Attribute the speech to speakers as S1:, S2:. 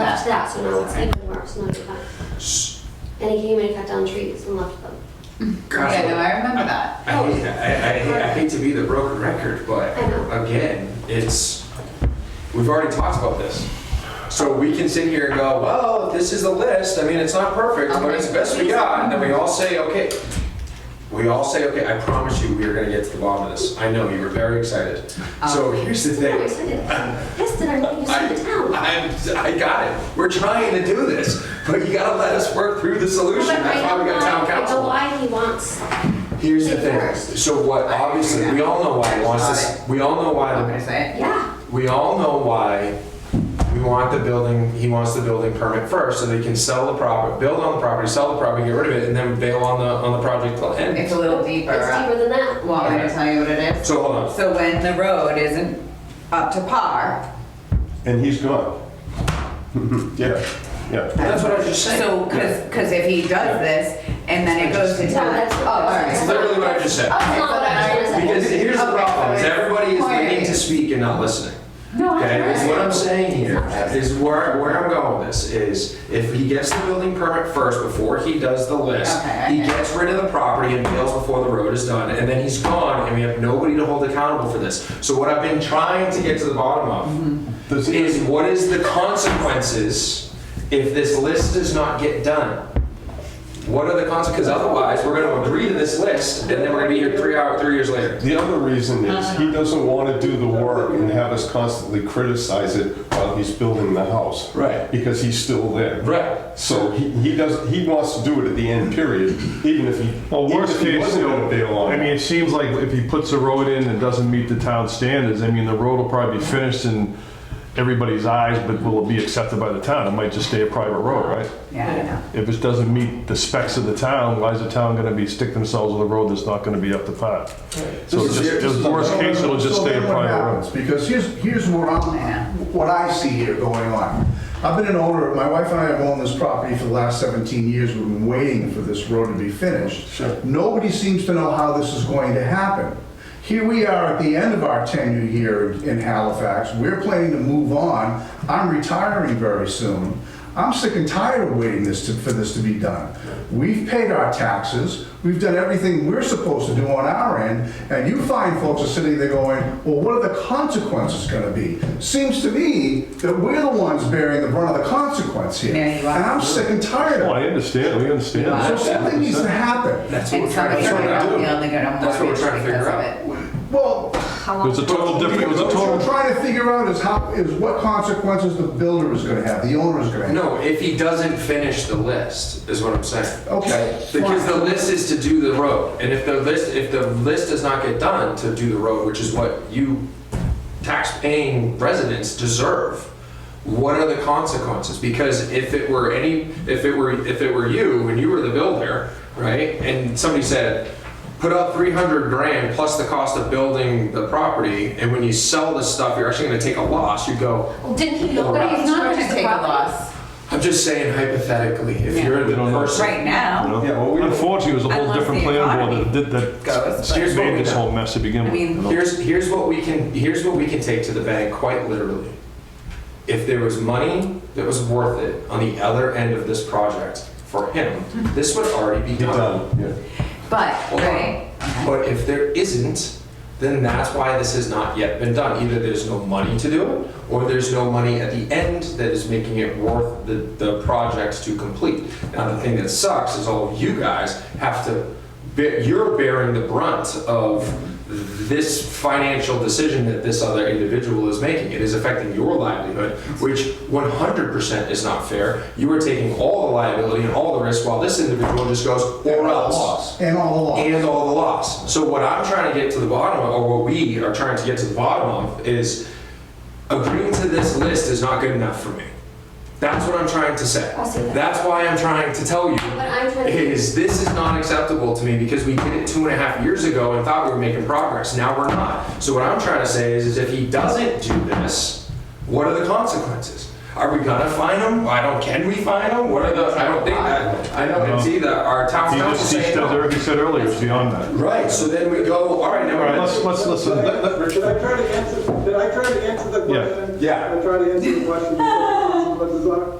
S1: it out, so now it's even worse, no, you're fine. And he came and cut down trees and left them.
S2: Gosh,
S3: Yeah, no, I remember that.
S2: I hate, I, I, I hate to be the broken record, but
S1: I know.
S2: again, it's, we've already talked about this. So we can sit here and go, well, this is the list, I mean, it's not perfect, but it's the best we got, and then we all say, okay. We all say, okay, I promise you, we are gonna get to the bottom of this, I know, you were very excited. So here's the
S1: No, I
S2: thing,
S1: said it. Yes, did I know you
S2: I,
S1: said Oh. it down?
S2: I, I got it, we're trying to do this, but you gotta let us work through the solution,
S1: But I
S2: that's why
S1: know
S2: we got town
S1: why- I know
S2: council.
S1: why he wants,
S2: Here's the
S1: It
S2: thing,
S1: works.
S2: so what, obviously, we all know why it wants this, we all know why,
S3: I'm gonna
S2: the-
S3: say it.
S1: yeah,
S2: we all know why we want the building, he wants the building permit first, so they can sell the property, build on the property, sell the property, get rid of it, and then bail on the, on the project till it
S3: It's
S2: ends.
S3: a little deeper. uh,
S1: it's deeper than that.
S3: Want me to tell you what it is?
S2: So hold on,
S3: So when the road isn't up to par,
S4: And he's gone. Yeah, yeah.
S2: that's what I was just saying,
S3: so, cause, 'cause if he does this and then it goes to
S1: No,
S3: town,
S1: that's-
S3: oh, all
S2: it's
S3: right.
S2: literally what I just said.
S1: That's not what I was gonna
S2: Because
S1: say.
S2: here's the
S3: Okay,
S2: problem, is
S3: so it's
S2: everybody is
S3: quiet.
S2: waiting to speak and not listening.
S3: No, I
S2: Okay, is what
S3: heard.
S2: I'm saying here, is where, where I'm going with this, is if he gets the building permit first before he does the list,
S3: Okay, I
S2: he
S3: get it.
S2: gets rid of the property and bails before the road is done, and then he's gone, and we have nobody to hold accountable for this. So what I've been trying to get to the bottom of
S4: Does he-
S2: is what is the consequences if this list does not get done? What are the consequences? Because otherwise, we're gonna agree to this list, and then we're gonna be here three hours, three years later.
S4: The other reason is
S2: Uh-huh.
S4: he doesn't want to do the work and have us constantly criticize it while he's building the house.
S2: Right.
S4: Because he's still there.
S2: Right.
S4: So he, he does, he wants to do it at the end, period, even if he,
S5: Well,
S4: even
S5: worst
S4: if he
S5: case,
S4: wasn't going to bail
S5: still,
S4: on
S5: I mean,
S4: it.
S5: it seems like if he puts a road in and doesn't meet the town standards, I mean, the road will probably be finished in everybody's eyes, but will it be accepted by the town? It might just stay a private road, right?
S3: Yeah, I know.
S5: If it doesn't meet the specs of the town, why is the town gonna be, stick themselves with a road that's not gonna be up to par? So
S6: This
S5: just,
S6: is- this is
S5: just
S6: the-
S5: worst case, it'll just
S6: So
S5: stay a
S6: then what
S5: private road.
S6: happens? Because here's, here's what
S3: Yeah.
S6: I'm, what I see here going on. I've been an owner, my wife and I have owned this property for the last 17 years, we've been waiting for this road to be finished.
S4: Sure.
S6: Nobody seems to know how this is going to happen. Here we are at the end of our tenure here in Halifax, we're planning to move on, I'm retiring very soon. I'm sick and tired of waiting this, to- for this to be done. We've paid our taxes, we've done everything we're supposed to do on our end, and you find folks are sitting there going, well, what are the consequences gonna be? Seems to me that we're the ones bearing the brunt of the consequence here.
S3: Yeah, you are.
S6: And I'm sick and tired
S5: Well,
S6: of
S5: I
S6: it.
S5: understand, we
S6: So
S5: understand.
S6: something needs to happen.
S2: That's what
S3: And
S2: we're trying to
S3: somebody's
S2: figure
S3: gonna
S2: out.
S3: go, the only gonna
S2: That's what we're
S3: mortgage
S2: trying to figure
S3: because of
S2: out.
S3: it.
S6: Well,
S5: It was a total different, it was a
S6: What
S5: total,
S6: we're trying to figure out is how, is what consequences the builder is gonna have, the owner is gonna have.
S2: No, if he doesn't finish the list, is what I'm saying.
S6: Okay,
S2: Because the
S6: fine.
S2: list is to do the road, and if the list, if the list does not get done to do the road, which is what you tax-paying residents deserve, what are the consequences? Because if it were any, if it were, if it were you, and you were the builder, right, and somebody said, put up three hundred grand plus the cost of building the property, and when you sell this stuff, you're actually gonna take a loss, you go,
S1: Well, Didn't he know
S2: Well,
S1: that
S3: He's
S1: he's
S3: not
S1: not
S3: gonna take a loss
S2: I'm just saying hypothetically, if
S3: Yeah.
S2: you're the
S5: We don't know.
S2: person.
S3: right now.
S4: Yeah, well, we don't-
S5: unfortunately, it was a whole
S3: Unless
S5: different
S3: the
S5: plan board that
S3: economy
S5: did, that
S3: Goes, but-
S2: Here's what we
S5: made this
S2: know.
S5: whole mess to begin
S3: I
S5: with.
S3: mean-
S5: you know?
S2: Here's, here's what we can, here's what we can take to the bank, quite literally. If there was money that was worth it on the other end of this project for him, this would already be
S4: He
S2: done.
S4: done, yeah.
S3: but,
S2: Hold on.
S3: right,
S2: But if there isn't, then that's why this has not yet been done. Either there's no money to do it, or there's no money at the end that is making it worth the, the projects to complete. Now, the thing that sucks is all of you guys have to, be- you're bearing the brunt of this financial decision that this other individual is making. It is affecting your livelihood, which 100% is not fair. You are taking all the liability and all the risk, while this individual just goes, or else
S6: And all the laws.
S2: and all the loss. So what I'm trying to get to the bottom of, or what we are trying to get to the bottom of, is agreeing to this list is not good enough for me. That's what I'm trying to say.
S1: I see that.
S2: That's why I'm trying to tell
S1: But
S2: you
S1: I'm trying to.
S2: is this is not acceptable to me because we did it two and a half years ago and thought we were making progress. Now we're not. So what I'm trying to say is, is if he doesn't do this, what are the consequences? Are we gonna fine him? I don't. Can we fine him? What are the? I don't think that. I know it's either our town
S5: He
S2: council
S5: just, he
S2: saying.
S5: said,
S2: no.
S5: he said earlier, it's beyond that.
S2: Right, so then we go, all right, now
S5: All right, let's,
S2: we're,
S5: let's, listen.
S7: Did I try to answer, did I try to answer the question?
S2: Yeah.
S7: Did I try to answer the question before the consequences are?